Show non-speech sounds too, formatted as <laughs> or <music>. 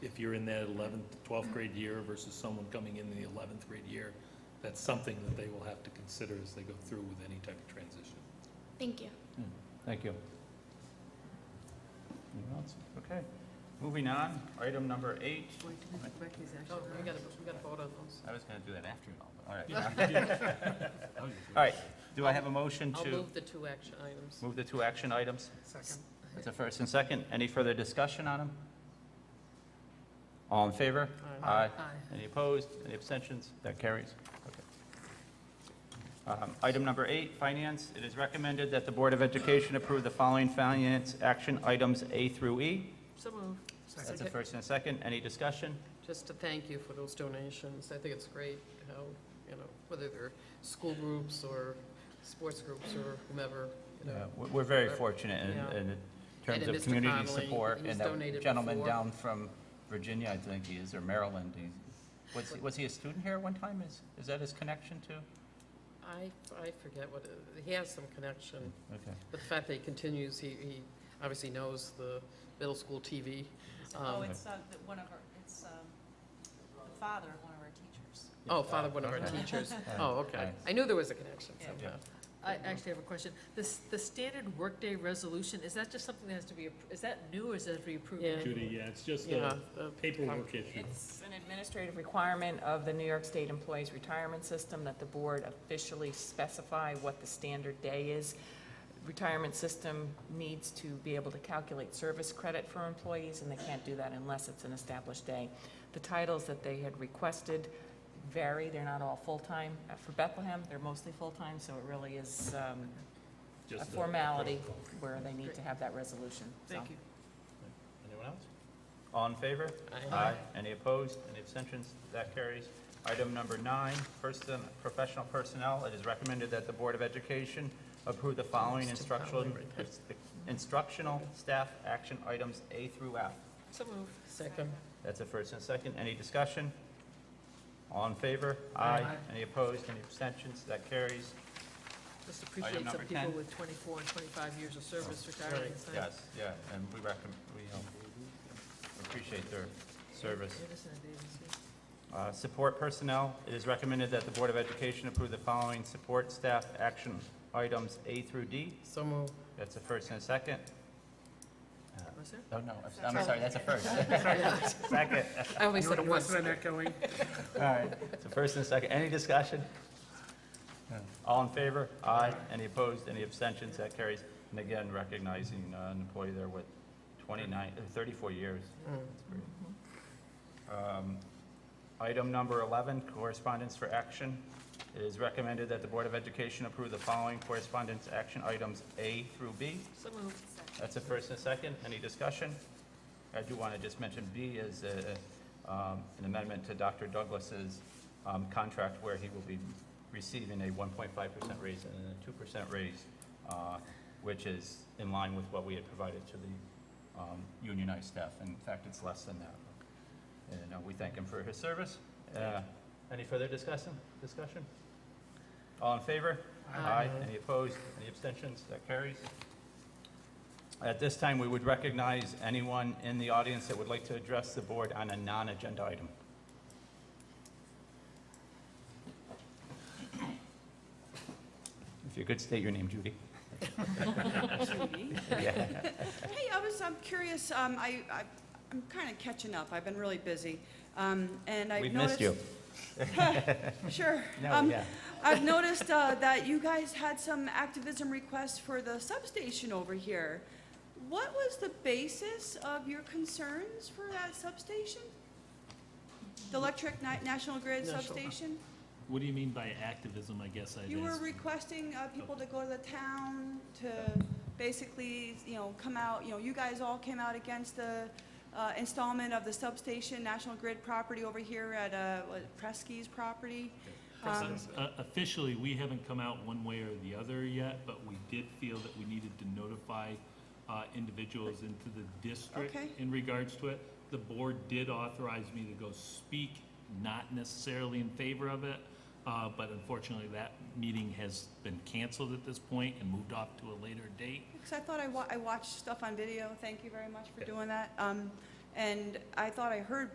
you're in that eleventh, twelfth grade year versus someone coming in the eleventh grade year, that's something that they will have to consider as they go through with any type of transition. Thank you. Thank you. Anyone else? Okay. Moving on, item number eight. Wait, do we have to break these action Oh, we gotta, items? we gotta vote on those. I was going to do that after you all, but all right. <laughs> All right, do I have a motion I'll to move the two action items. move the two action items? Second. That's a first and second. Any further discussion on them? All in favor? Aye. Any opposed? Any abstentions? That carries. Okay. Um, Item number eight, finance. It is recommended that the Board of Education approve the following finance action items A through E. So move. That's a Second. first and a second. Any discussion? Just to thank you for those donations. I think it's great how, you know, whether they're school groups or sports groups or whomever, you know. Yeah, we- Uh, We're very Right. fortunate in- Yeah. in the And terms then of Mr. community Connolly, support. he's And that donated gentleman before. down from Virginia, I think he is, or Maryland, he- was, was he a student here at one time? Is, is that his connection to? I, I forget what, it- he has some connection, Okay. but the fact that he continues, he, he obviously knows the middle school TV. Oh, Um, it's uh, the- one of our, it's um, the father of one of our teachers. Oh, father of one of our Okay. teachers. All right. Oh, okay. I knew there was a connection Yeah. somehow. I actually have a question. This, the standard workday resolution, is that just something that has to be, appro- is that new or is that to be approved? Yeah. Judy, yeah, it's just Yeah. Uh, a paperwork issue. It's an administrative requirement of the New York State Employees Retirement System that the board officially specify what the standard day is. Retirement system needs to be able to calculate service credit for employees, and they can't do that unless it's an established day. The titles that they had requested vary, they're not all full-time. Uh, For Bethlehem, they're mostly full-time, so it really is um, a Just the- formality where they need to have that resolution, so. Thank you. Anyone else? All in favor? Aye. Any opposed? Any abstentions? That carries. Item number nine, person, professional personnel. It is recommended that the Board of Education approve the following instructional, instructional staff action items A through F. So move. Second. That's a first and second. Any discussion? All in favor? Aye. Any opposed? Any abstentions? That carries. Just Item appreciate number some people 10. with 24 and 25 years of service Right. retiring. and stuff. Yes, yeah, and we recommend, we um, appreciate their service. Anderson and Davis, yeah. Uh, Support personnel, it is recommended that the Board of Education approve the following support staff action items A through D. So move. That's a first and a second. Was there? Oh, no, I'm sorry, that's a first. <laughs> Second. I only said it once. All right, so first and second, any discussion? All in favor? Aye. Any opposed, any abstentions, that carries. And again, recognizing uh, an employee there with 29, uh, 34 years. That's great. Um, Item number 11, correspondence for action. It is recommended that the Board of Education approve the following correspondence action items A through B. So moved. That's a first and a second. Any discussion? I do want to just mention B is uh, um, an amendment to Dr. Douglas's um, contract where he will be receiving a 1.5% raise and a 2% raise, uh, which is in line with what we had provided to the um, unionized staff. In fact, it's less than that. And uh, we thank him for his service. Uh, Any further discussion? Discussion? All in favor? Aye. Any opposed? Any abstentions? That carries. At this time, we would recognize anyone in the audience that would like to address the board on a non-agenda item. If you could state your name, Judy. Yeah. <laughs> Hey, I was, I'm curious, um, I, I, I'm kind of catching up, I've been really busy, um, and I've We've noticed. missed you. <laughs> Sure. No, Um, yeah. I've noticed, uh, that you guys had some activism requests for the substation over here. What was the basis of your concerns for that substation? The electric ni- National Grid National- substation? What do you mean by activism, I guess I'd You were ask? requesting uh, people to go to the town to basically, you know, come out, you know, you guys all came out against the uh, installment of the substation, National Grid property over here at uh, what, Preskey's property. Um, Uh, Officially, we haven't come out one way or the other yet, but we did feel that we needed to notify uh, individuals into the district Okay. in regards to it. The board did authorize me to go speak, not necessarily in favor of it, uh, but unfortunately, that meeting has been canceled at this point and moved off to a later date. Because I thought I wa, I watched stuff on video, thank you very much for doing that. Um, and I thought I heard